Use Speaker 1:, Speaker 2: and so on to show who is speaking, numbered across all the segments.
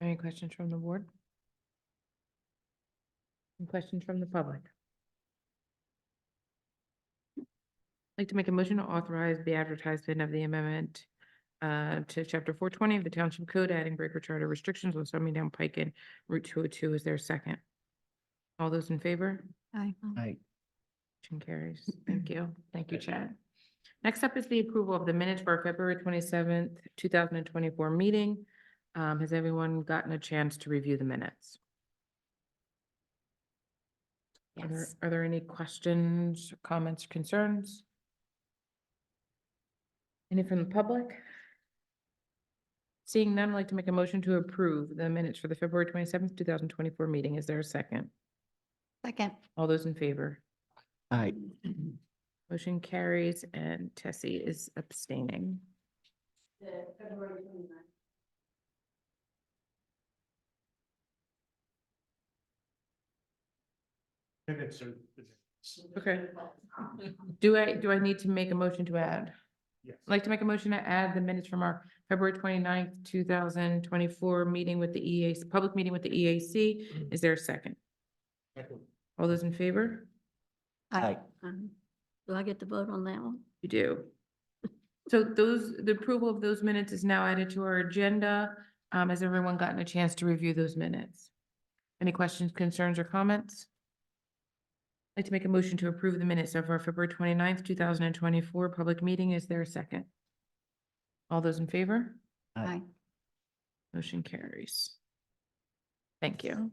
Speaker 1: Any questions from the board? Any questions from the public? I'd like to make a motion to authorize the advertisement of the amendment uh, to chapter four twenty of the Township Code, adding breaker charter restrictions on Summing Down Pike and Route two oh two. Is there a second? All those in favor?
Speaker 2: Aye.
Speaker 3: Aye.
Speaker 1: Motion carries. Thank you. Thank you, Chad. Next up is the approval of the minutes for our February twenty-seventh, two thousand and twenty-four meeting. Um, has everyone gotten a chance to review the minutes? Are there,
Speaker 2: Yes.
Speaker 1: are there any questions, comments, concerns? Any from the public? Seeing none, I'd like to make a motion to approve the minutes for the February twenty-seventh, two thousand and twenty-four meeting. Is there a second?
Speaker 2: Second.
Speaker 1: All those in favor?
Speaker 3: Aye.
Speaker 1: Motion carries and Tessie is abstaining.
Speaker 4: Minutes are.
Speaker 1: Okay. Do I, do I need to make a motion to add?
Speaker 4: Yes.
Speaker 1: I'd like to make a motion to add the minutes from our February 29th, thousand twenty-four meeting with the EAC, public meeting with the EAC. Is there a second?
Speaker 4: Second.
Speaker 1: All those in favor?
Speaker 3: Aye.
Speaker 2: Um, Do I get to vote on that one?
Speaker 1: You do. So those, the approval of those minutes is now added to our agenda. Um, has everyone gotten a chance to review those minutes? Any questions, concerns, or comments? I'd like to make a motion to approve the minutes of our February 29th, thousand and twenty-four public meeting. Is there a second? All those in favor?
Speaker 3: Aye.
Speaker 1: Motion carries. Thank you.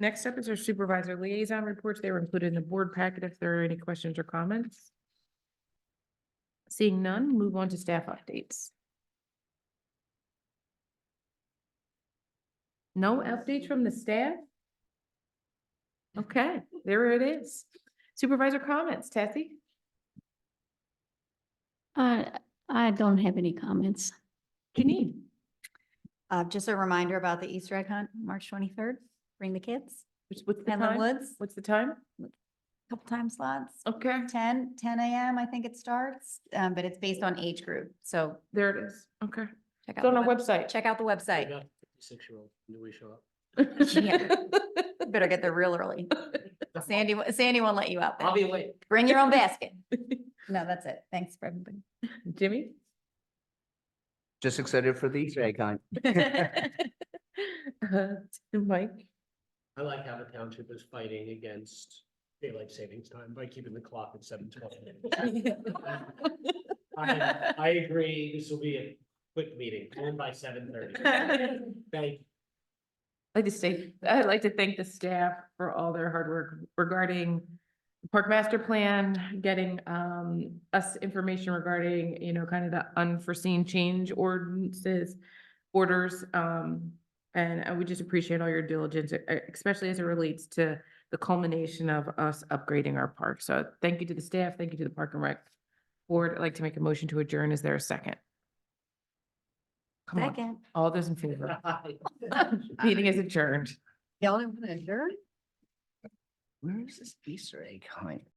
Speaker 1: Next up is our supervisor liaison reports. They were included in the board packet if there are any questions or comments. Seeing none, move on to staff updates. No updates from the staff? Okay, there it is. Supervisor comments, Tessie?
Speaker 2: I, Uh, I don't have any comments.
Speaker 1: Janine?
Speaker 5: Uh, just a reminder about the Easter egg hunt, March twenty-third. Bring the kids
Speaker 1: What's what's the
Speaker 5: and the
Speaker 1: time?
Speaker 5: woods,
Speaker 1: What's the time?
Speaker 5: couple time slots.
Speaker 1: Okay,
Speaker 5: 10 10 AM, I think it starts, um, but it's based on age group. So
Speaker 1: there it is. Okay.
Speaker 5: check out,
Speaker 1: It's on
Speaker 5: the
Speaker 1: our
Speaker 5: web-
Speaker 1: website.
Speaker 5: check out the website.
Speaker 4: Fifty-six-year-old, do we show up?
Speaker 5: Yeah. Better get there real early. Sandy, wo- Sandy won't let you out there.
Speaker 4: away.
Speaker 5: Bring your own basket. No, that's it. Thanks for everybody.
Speaker 1: Jimmy?
Speaker 3: Just excited for the Easter egg hunt.
Speaker 1: Uh, Mike?
Speaker 4: I like how the township is fighting against daylight savings time by keeping the clock at seven twelve. I, I agree, this will be a quick meeting, end by seven thirty.
Speaker 1: I'd
Speaker 4: Thank,
Speaker 1: like to say, I'd like to thank the staff for all their hard work regarding Park Master Plan, getting um us information regarding, you know, kind of the unforeseen change ordinances, orders, um, and I would just appreciate all your diligence, e- especially as it relates to the culmination of us upgrading our park. So thank you to the staff, thank you to the Park and Rec Board. I'd like to make a motion to adjourn. Is there a second? Come on.
Speaker 5: Second.
Speaker 1: All those in favor? Meeting is adjourned.
Speaker 2: Y'all didn't want to adjourn?
Speaker 3: Where is this Easter egg hunt?